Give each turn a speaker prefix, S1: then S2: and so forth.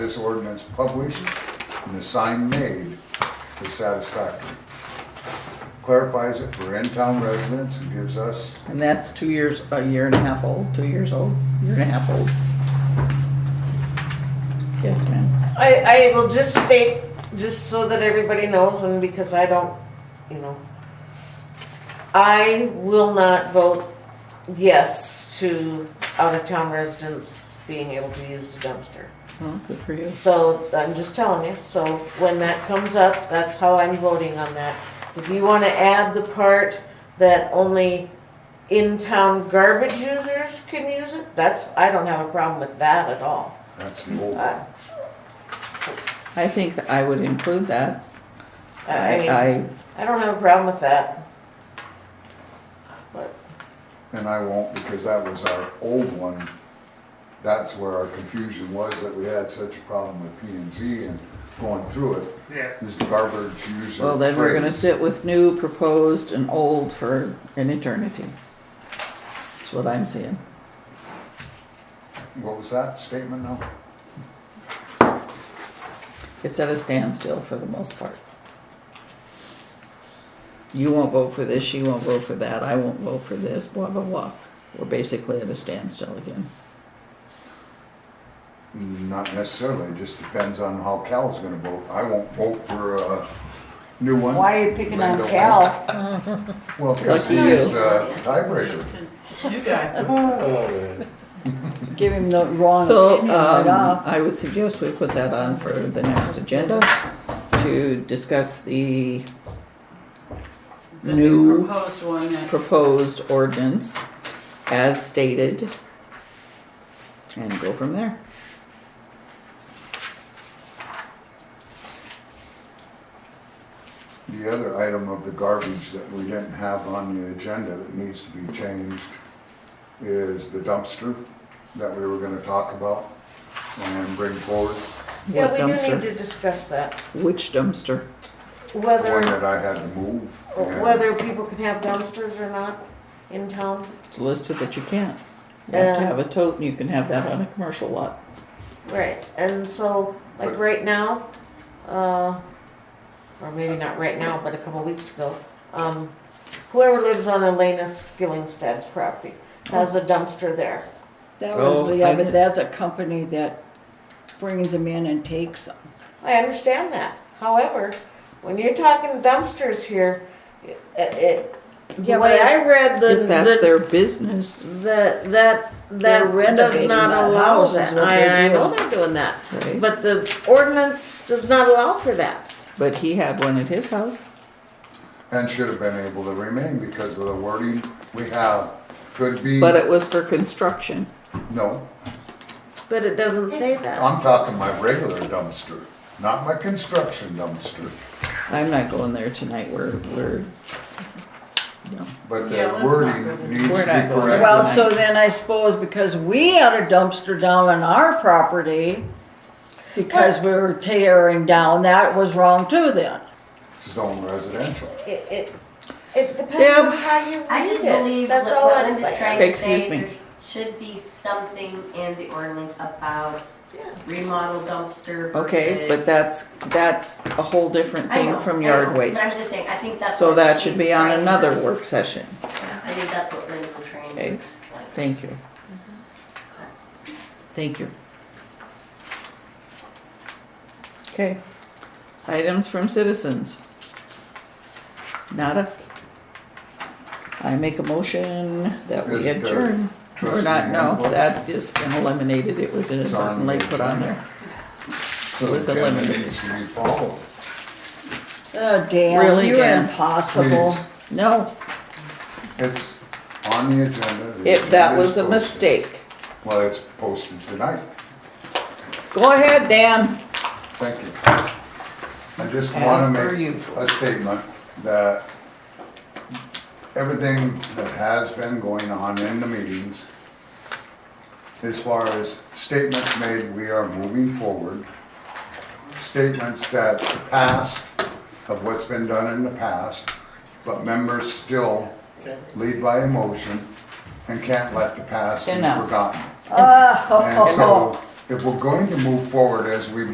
S1: This ordinance published and the sign made is satisfactory. Clarifies it for in-town residents and gives us,
S2: And that's two years, a year and a half old, two years old, year and a half old. Yes, ma'am.
S3: I, I will just state, just so that everybody knows, and because I don't, you know, I will not vote yes to out-of-town residents being able to use the dumpster.
S2: Well, good for you.
S3: So, I'm just telling you, so when that comes up, that's how I'm voting on that. If you wanna add the part that only in-town garbage users can use it, that's, I don't have a problem with that at all.
S1: that's the old,
S3: Uh,
S2: I think that I would include that.
S3: I, I mean.
S2: I,
S3: I don't have a problem with that. But,
S1: and I won't because that was our old one. That's where our confusion was, that we had such a problem with P and Z and going through it.
S4: Yeah.
S1: Is the garbage user.
S2: well, then we're gonna
S1: phrase.
S2: sit with new, proposed, and old for an eternity. That's what I'm saying.
S1: What was that statement now?
S2: It's at a standstill for the most part. You won't vote for this, she won't vote for that, I won't vote for this, blah, blah, blah. We're basically at a standstill again.
S1: Not necessarily, it just depends on how Cal's gonna vote. I won't vote for a new one.
S5: Why are you picking on
S1: Linda
S5: Cal?
S1: won't. Well, because
S2: Lucky
S1: he's
S2: you.
S1: uh, tiebreaker.
S2: Oh.
S5: Give him the wrong
S2: So,
S5: opinion right
S2: um,
S5: off.
S2: I would suggest we put that on for the next agenda to discuss the
S6: The new
S2: new
S6: proposed one that
S2: proposed ordinance as stated. And go from there.
S1: The other item of the garbage that we didn't have on the agenda that needs to be changed is the dumpster that we were gonna talk about and bring forward.
S3: yeah,
S2: What
S3: we do need
S2: dumpster?
S3: to discuss that,
S2: Which dumpster?
S1: The one
S3: whether,
S1: that I had to move.
S2: Oh,
S1: and-
S3: whether people can have dumpsters or not in town.
S2: It's listed that you can't. You have to
S3: Yeah.
S2: have a tote and you can have that on a commercial lot.
S3: Right, and so, like right now, uh, or maybe not right now, but a couple weeks ago, um, whoever lives on Elena Skillingstad's property has a dumpster there.
S5: That
S2: Oh,
S5: was, the- yeah,
S2: I-
S5: but that's a company that brings them in and takes them.
S3: I understand that. However, when you're talking dumpsters here, it, it, the
S5: Yeah,
S3: way
S5: but
S3: I read the,
S2: If that's
S3: the
S2: their business,
S3: That, that,
S5: They're
S3: that does
S5: renovating
S3: not
S5: that
S3: allow
S5: house is
S3: that.
S5: what
S3: I,
S5: they're
S3: I know
S5: doing.
S3: they're doing that.
S2: Right.
S3: But the ordinance does not allow for that.
S2: but he had one at his house.
S1: And should have been able to remain because of the wording we have. Could be,
S2: But it was for construction.
S1: no,
S3: But it doesn't say that.
S1: I'm talking my regular dumpster, not my construction dumpster.
S2: I'm not going there tonight. We're, we're,
S1: But
S6: Yeah, let's
S1: the
S6: not
S1: wording
S6: go there.
S1: needs to be
S2: We're not going there.
S5: Well,
S1: corrected.
S5: so then I suppose because we had a dumpster down on our property, because we were tearing down, that was wrong too then.
S1: Zone residential.
S3: It, it, it depends
S2: Deb.
S3: on how you
S7: I just
S3: read it.
S7: believe
S3: That's
S7: what
S3: all
S7: what
S3: I'm
S7: Linda's
S3: saying.
S7: trying to
S2: Excuse
S7: say is
S2: me.
S7: there should be something in the ordinance about remodel dumpster versus.
S2: okay, but that's, that's a whole different
S7: I know,
S2: thing from
S7: I know,
S2: yard
S7: but
S2: waste.
S7: I'm just saying, I think that's.
S2: So
S7: what
S2: that
S7: she's
S2: should be on
S7: trying to-
S2: another work session.
S7: I think that's what Linda's trying to
S2: Okay.
S7: explain.
S2: Thank you.
S7: Mm-hmm.
S2: Thank you. Okay, items from citizens. Nada? I make a motion that
S1: Is
S2: we
S1: there
S2: adjourn. Or
S1: trustee
S2: not, no,
S1: handbook?
S2: that is been eliminated, it was inadvertently
S1: Sorry.
S2: put on there.
S1: So
S2: was
S1: the agenda
S2: eliminated.
S1: Needs to be followed.
S5: Oh, Dan,
S2: Really,
S5: you're
S2: Dan?
S5: impossible.
S1: Please.
S2: No,
S1: It's on the agenda. the
S2: it, that
S1: agenda
S2: was
S1: is
S2: a
S1: posted.
S2: mistake.
S1: Well, it's posted tonight,
S2: Go ahead, Dan.
S1: thank you. I just wanna
S2: As per
S1: make
S2: usual.
S1: a statement that everything that has been going on in the meetings, as far as statements made, we are moving forward. Statements that the past, of what's been done in the past, but members still lead by emotion and can't let the past be
S2: Enough.
S1: forgotten.
S5: Oh,
S1: And so if we're going to move forward as we